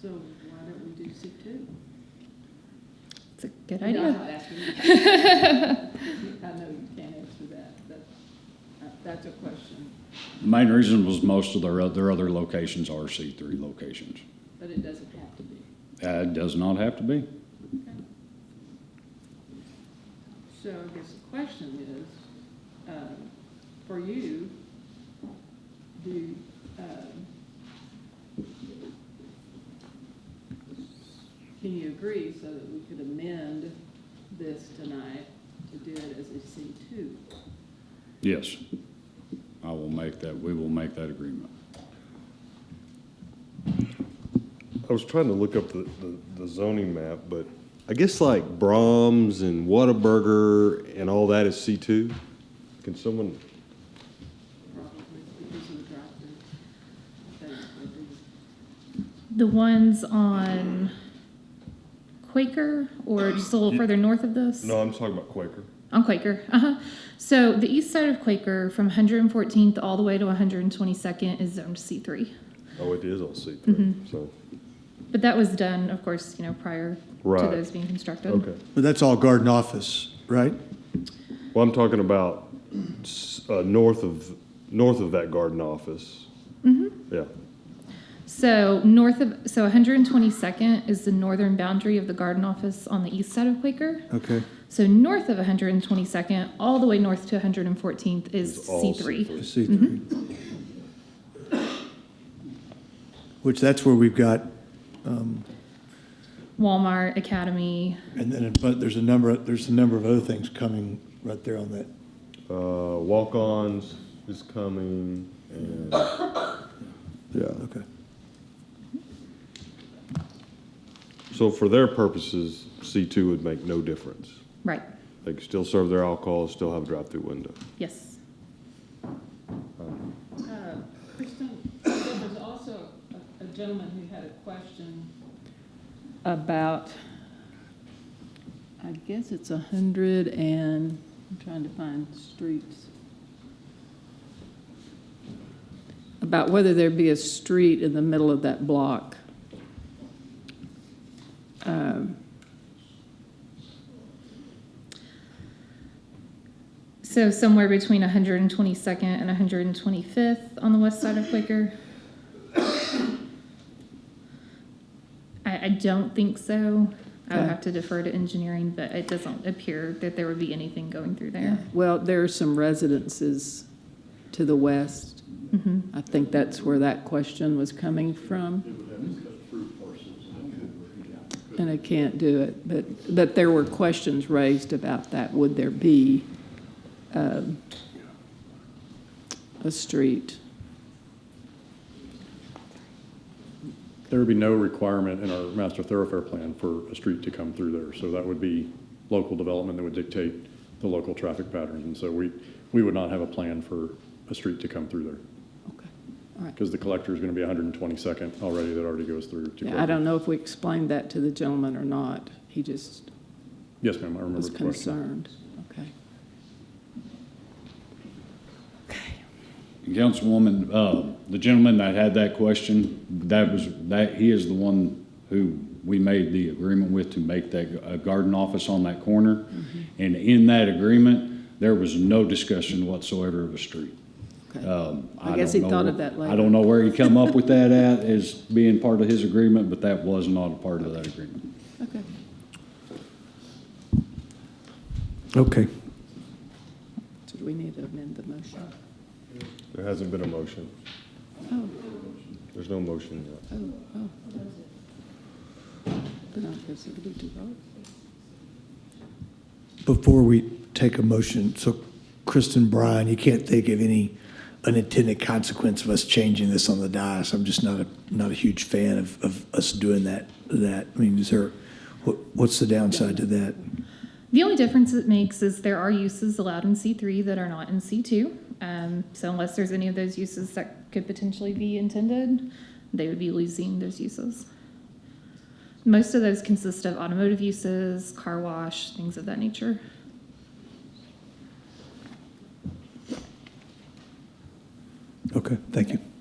So why don't we do C two? It's a good I know I'm idea. not asking you. I know you can't answer that, but uh, that's a question, The main reason was most of their, oth- their other locations are C3 locations. but it doesn't have to be. Uh, It does not have to be. So I guess the question is, um, for you, do, um, can you agree so that we could amend this tonight to do it as a C two? Yes. I will make that, we will make that agreement. I was trying to look up the, the, the zoning map, but I guess like Brahms and Whataburger and all that is C two? Can someone, Probably because of the drive-through. That would be- The ones on Quaker or just a little further north of this? no, I'm talking about Quaker. On Quaker. Uh-huh. So the east side of Quaker from 114th all the way to 122nd is zoned C3. Oh, it is all C three, so, But that was done, of course, you know, prior to Right. those being constructed. okay. But that's all garden office, right? Well, I'm talking about, s- uh, north of, north of that garden office. Mm-hmm. Yeah, So north of so 122nd is the northern boundary of the garden office on the east side of Quaker. Okay. So north of 122nd, all the way north to 114th is It's all C3. C3. C three. Which that's where we've got, Walmart, Academy. and then, but there's a number, there's a number of other things coming right there on that. uh, walk-ons is coming and, yeah. Okay. So for their purposes, C two would make no difference. Right. They can still serve their alcohol, still have a drive-through window. Yes. Uh, Kristen, there was also a- a gentleman who had a question about, I guess it's a hundred and, I'm trying to find streets. About whether there'd be a street in the middle of that block. Um, So somewhere between 122nd and 125th on the west side of Quaker. I, I don't think so. I would Okay. have to defer to engineering, but it doesn't appear that there would be anything going through there. Well, there are some residences to the west. Mm-hmm. I think that's where that question was coming from. And I can't do it, but, but there were questions raised about that. Would there be um, a street? There would be no requirement in our master thoroughfare plan for a street to come through there. So that would be local development that would dictate the local traffic patterns. And so we, we would not have a plan for a street to come through there Okay, all right. because the collector is going to be 122nd already that already goes through. to Yeah, I Kroger. don't know if we explained that to the gentleman or not. He just Yes, ma'am, I remember was the question. concerned. Okay. Councilwoman, uh, the gentleman that had that question, that was, that, he is the one who we made the agreement with to make that uh, garden office on that corner. Mm-hmm. And in that agreement, there was no discussion whatsoever of a street. Okay. Um, I guess he don't thought know- of that I later. don't know where he come up with that at as being part of his agreement, but that was not a part of that agreement. Okay. Okay. So do we need to amend the motion? There hasn't been a motion. Oh. There's no motion yet. Oh, oh. Then I guess we need to vote. Before we take a motion, so Kristen Bryan, you can't think of any unintended consequence of us changing this on the dais. I'm just not a, not a huge fan of, of us doing that, that. I mean, is there, what, what's the downside to that? The only difference it makes is there are uses allowed in C3 that are not in C2. Um, so unless there's any of those uses that could potentially be intended, they would be losing those uses. Most of those consist of automotive uses, car wash, things of that nature. Okay, thank you.